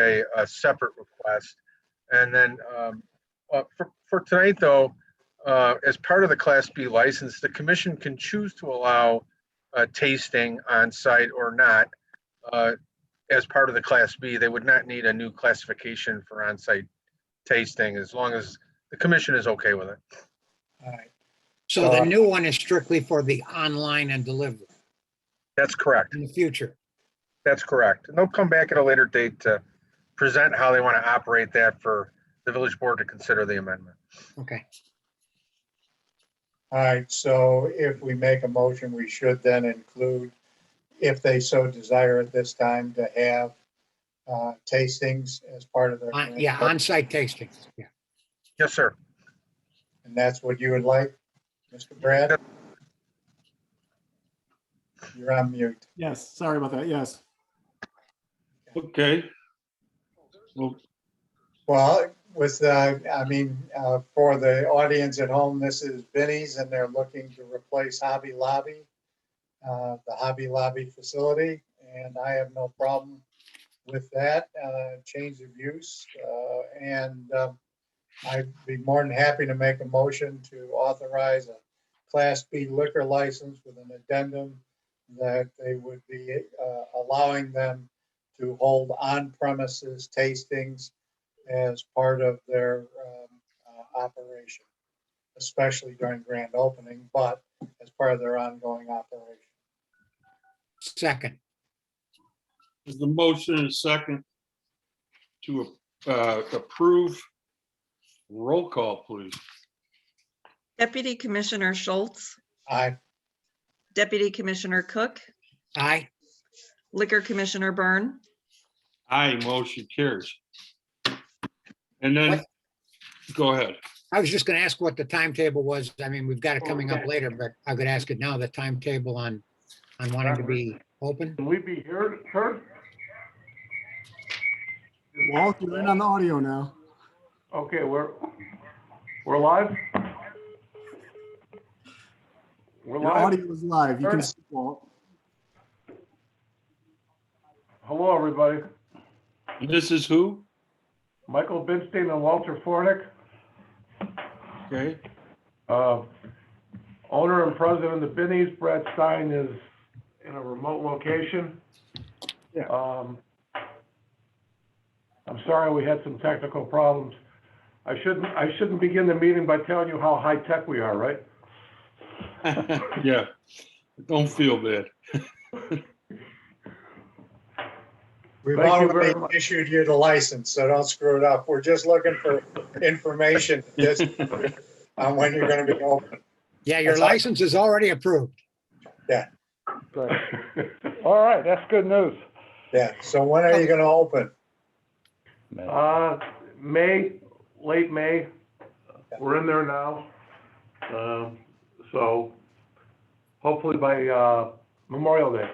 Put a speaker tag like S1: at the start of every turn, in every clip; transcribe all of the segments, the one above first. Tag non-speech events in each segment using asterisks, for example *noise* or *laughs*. S1: a, a separate request. And then, um, uh, for, for tonight though, uh, as part of the Class B license, the commission can choose to allow, uh, tasting on site or not. Uh, as part of the Class B, they would not need a new classification for on site tasting as long as the commission is okay with it.
S2: All right. So the new one is strictly for the online and delivery
S1: That's correct.
S2: in the future.
S1: That's correct. And they'll come back at a later date to present how they want to operate that for the village board to consider the amendment.
S2: Okay.
S3: All right, so if we make a motion, we should then include, if they so desire at this time, to have uh, tastings as part of their.
S2: On- Uh, Yeah, on-site tasting. Yeah.
S1: Yes, sir.
S3: And that's what you would like, Mr. Brad? You're on mute.
S4: Yes, sorry about that. Yes.
S5: Okay. Well,
S3: Well, with, uh, I mean, uh, for the audience at home, this is Benny's and they're looking to replace Hobby Lobby, uh, the Hobby Lobby facility, and I have no problem with that, uh, change of use. uh, And um, I'd be more than happy to make a motion to authorize a Class B liquor license with an addendum that they would be uh, allowing them to hold on-premises tastings as part of their um, uh, operation, especially during grand opening, but as part of their ongoing operation.
S2: Second.
S5: is the motion and second to uh, approve? Roll call, please.
S6: Deputy Commissioner Schultz,
S3: I,
S6: Deputy Commissioner Cook,
S2: Aye.
S6: Liquor Commissioner Byrne,
S5: Aye, motion carries. And then, go ahead.
S2: I was just going to ask what the timetable was. I mean, we've got it coming up later, but I could ask it now, the timetable on, on wanting to be open.
S7: Can we be heard, heard?
S4: Walt, you're in on the audio now.
S7: Okay, we're, we're live? We're
S4: Your
S7: live?
S4: audio is live. You can see Walt.
S7: Hello, everybody.
S5: This is who? *laughs*
S7: Michael Binstein and Walter Fornick,
S5: Okay,
S7: uh, owner and president of the Binnies. Brad Stein is in a remote location.
S4: Yeah.
S7: Um, I'm sorry, we had some technical problems. I shouldn't, I shouldn't begin the meeting by telling you how high-tech we are, right?
S5: yeah. Don't feel bad.
S3: we've
S7: Thank you
S3: already
S7: very much.
S3: issued you the license, so don't screw it up. We're just looking for information just on when you're going to be open.
S2: Yeah, your
S3: That's all.
S2: license is already approved.
S7: All right, that's good news.
S3: Yeah, so when are you going to open?
S7: Uh, May, late May, we're in there now. Um, so hopefully by, uh, Memorial Day.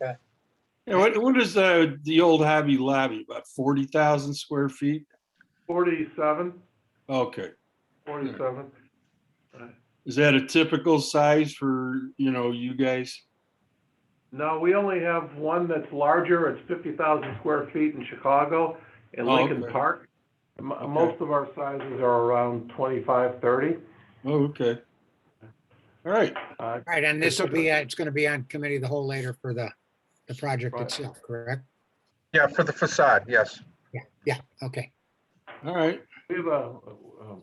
S5: Yeah, What, what is the, the old Hobby Lobby, about 40,000 square feet?
S7: Forty-seven,
S5: Okay.
S7: forty-seven.
S5: Is that a typical size for, you know, you guys?
S7: No, we only have one that's larger. It's fifty thousand square feet in Chicago, in
S5: Oh,
S7: Lincoln
S5: okay.
S7: Park. M- Most of our sizes are around twenty-five, thirty.
S5: Oh, okay. All right.
S7: Uh,
S2: Right, and this will be, uh, it's going to be on committee of the whole later for the, the project
S7: Right.
S2: itself, correct?
S1: Yeah, for the facade, yes.
S2: Yeah, okay.
S5: All right.
S7: We have a, um,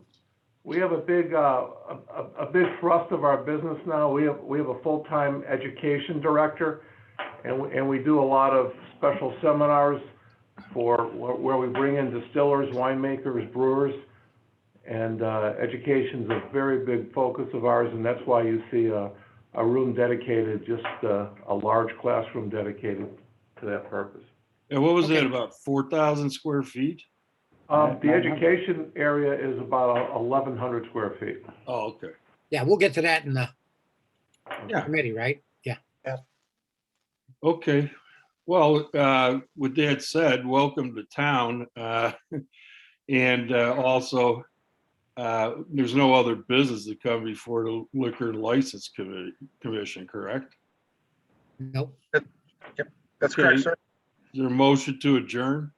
S7: we have a big, uh, a, a- a big thrust of our business now. We have, we have a full-time education director, and, we- and we do a lot of special seminars for, where where we bring in distillers, winemakers, brewers, and uh, education's a very big focus of ours, and that's why you see a, a room dedicated, just uh, a large classroom dedicated to that purpose.
S5: And what was
S2: Okay.
S5: that, about four thousand square feet?
S7: Um, The education area is about 1,100 square feet.
S5: Oh, okay.
S2: Yeah, we'll get to that in the
S5: Yeah.
S2: committee, right? Yeah.
S5: Okay. Well, uh, with that said, welcome to town. Uh, *laughs* and, uh, also, uh, there's no other business to come before the liquor license committee, commission, correct?
S2: Nope.
S1: That's
S5: Okay.
S1: correct, sir.
S5: Is there a motion to adjourn?